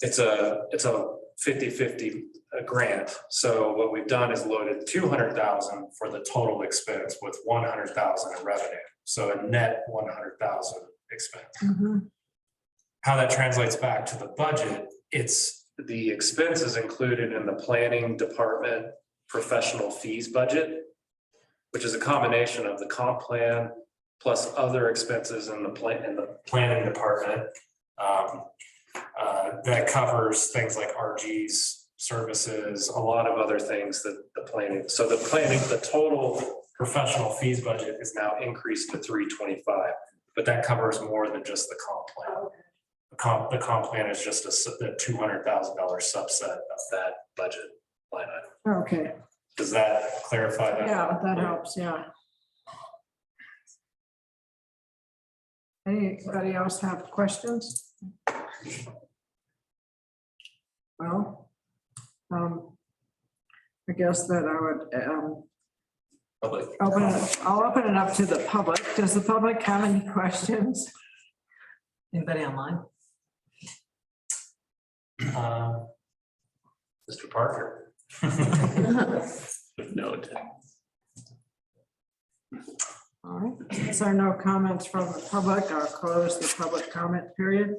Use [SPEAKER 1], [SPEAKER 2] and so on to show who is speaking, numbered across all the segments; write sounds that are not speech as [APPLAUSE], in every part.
[SPEAKER 1] It's a, it's a 50/50 uh, grant. So what we've done is loaded two hundred thousand for the total expense with one hundred thousand in revenue. So a net one hundred thousand expense.
[SPEAKER 2] Mhm.
[SPEAKER 1] How that translates back to the budget, it's the expenses included in the planning department professional fees budget, which is a combination of the comp plan plus other expenses in the plan, in the planning department. Um, uh, That covers things like RG's services, a lot of other things that the planning, so the planning, the total professional fees budget is now increased to three twenty-five, but that covers more than just the comp plan. The comp, the comp plan is just a, sub- the two hundred thousand dollar subset of that budget line item.
[SPEAKER 2] Okay,
[SPEAKER 1] Does that clarify that?
[SPEAKER 2] yeah, that helps, yeah. Anybody else have questions? Well, um, I guess that I would, um, [CLEARS THROAT]
[SPEAKER 3] Public.
[SPEAKER 2] open it, I'll open it up to the public. Does the public have any questions?
[SPEAKER 4] Anybody online?
[SPEAKER 1] Um, Mr. Parker.
[SPEAKER 3] No.
[SPEAKER 2] All right, since there are no comments from the public, I'll close the public comment period.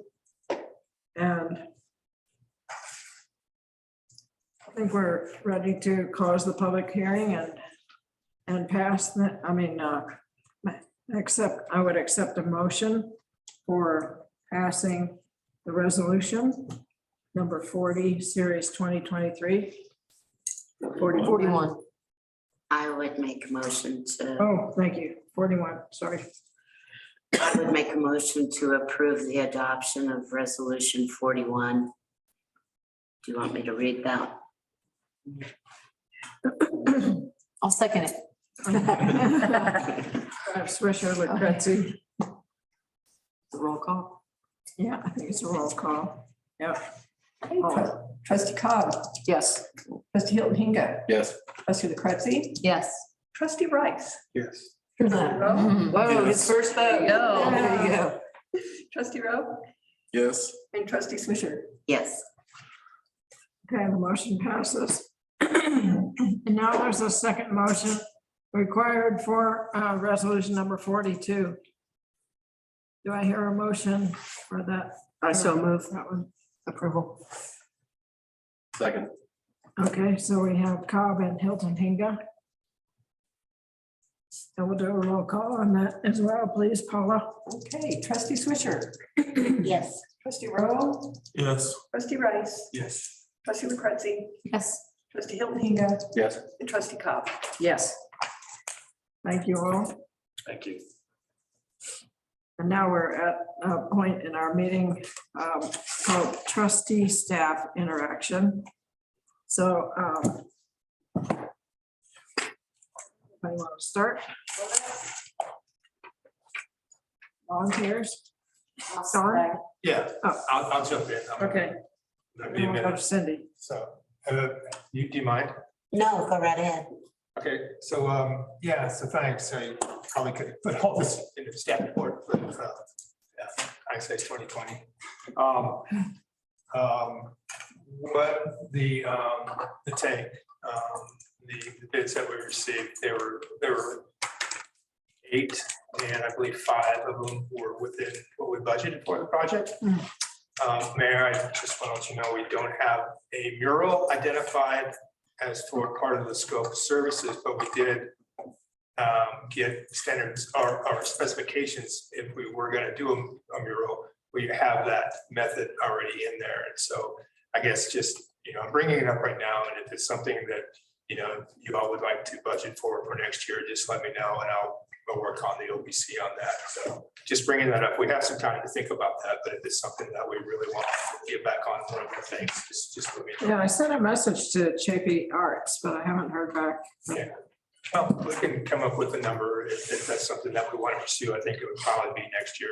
[SPEAKER 2] And I think we're ready to close the public hearing and, and pass the, I mean, uh, accept, I would accept a motion for passing the resolution number forty, series twenty twenty-three.
[SPEAKER 5] Forty-one. I would make a motion to,
[SPEAKER 2] Oh, thank you, forty-one, sorry.
[SPEAKER 5] I would make a motion to approve the adoption of resolution forty-one. Do you want me to read that?
[SPEAKER 4] I'll second it.
[SPEAKER 2] I wish I would, Betsy.
[SPEAKER 5] Roll call.
[SPEAKER 2] Yeah, I think it's a roll call. Yeah.
[SPEAKER 6] Trustee Cobb,
[SPEAKER 4] Yes.
[SPEAKER 6] trustee Hilton Hinga,
[SPEAKER 3] Yes.
[SPEAKER 6] trustee LaCretzi,
[SPEAKER 4] Yes. Mm-hmm.
[SPEAKER 6] trustee Rice.
[SPEAKER 3] Yes.
[SPEAKER 4] Whoa, his first vote. No. There you go.
[SPEAKER 6] Trustee Rowe
[SPEAKER 3] Yes.
[SPEAKER 6] and trustee Swisher.
[SPEAKER 5] Yes,
[SPEAKER 2] Okay, the motion passes. And now there's a second motion required for uh, resolution number forty-two. Do I hear a motion for that?
[SPEAKER 4] I
[SPEAKER 2] so
[SPEAKER 4] move
[SPEAKER 2] That one.
[SPEAKER 4] approval.
[SPEAKER 3] Second.
[SPEAKER 2] Okay, so we have Cobb and Hilton Hinga. So we'll do a roll call on that as well, please, Paula.
[SPEAKER 6] Okay, trustee Swisher,
[SPEAKER 5] yes,
[SPEAKER 6] trustee Rowe,
[SPEAKER 3] Yes.
[SPEAKER 6] trustee Rice,
[SPEAKER 3] Yes.
[SPEAKER 6] trustee LaCretzi,
[SPEAKER 4] Yes.
[SPEAKER 6] trustee Hilton Hinga,
[SPEAKER 3] Yes.
[SPEAKER 6] and trustee Cobb.
[SPEAKER 4] Yes.
[SPEAKER 2] Thank you all.
[SPEAKER 1] Thank you.
[SPEAKER 2] And now we're at a point in our meeting um, called trustee staff interaction. So. um, if I want to start. Volunteers? Sorry,
[SPEAKER 7] Yeah,
[SPEAKER 2] Oh.
[SPEAKER 7] I'll, I'll jump in. I'm-
[SPEAKER 2] okay.
[SPEAKER 7] That'd be a
[SPEAKER 2] Now we'll go to
[SPEAKER 7] minute.
[SPEAKER 2] Cindy.
[SPEAKER 7] So, uh, you, do you mind?
[SPEAKER 5] no, go right ahead.
[SPEAKER 7] Okay, so, um, yeah, so thanks. I probably could put all this in the staff report, but, uh, yeah, I say twenty twenty. Um, um, what the, um, the tank, um, the the bids that we received, there were, there were eight, and I believe five of them were within what we budgeted for the project.
[SPEAKER 5] Mm.
[SPEAKER 7] Um, Mayor, I just want to let you know, we don't have a mural identified as for part of the scope of services, but we did um, get standards or, or specifications if we were gonna do a- a mural, we have that method already in there. And so I guess just, you know, I'm bringing it up right now, and if it's something that, you know, you all would like to budget for for next year, just let me know and I'll, I'll work on the OBC on that. So just bringing that up. We have some time to think about that, but if it's something that we really want to get back on, one of the things, just, just let me know.
[SPEAKER 2] Yeah, I sent a message to Chapey Arts, but I haven't heard back.
[SPEAKER 7] Well, we can come up with a number if if that's something that we want to pursue. I think it would probably be next year.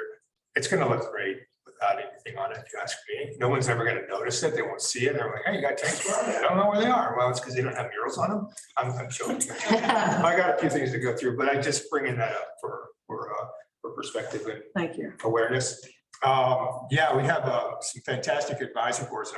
[SPEAKER 7] It's gonna look great without anything on it, if you ask me. No one's ever gonna notice it. They won't see it. They're like, hey, you got tanks around there? I don't know where they are. Well, it's because they don't have murals on them. I'm, I'm joking. I got a few things to go through, but I just bringing that up for, for, uh, for perspective and
[SPEAKER 2] Thank you.
[SPEAKER 7] awareness. Um, yeah, we have, uh, some fantastic advisory boards and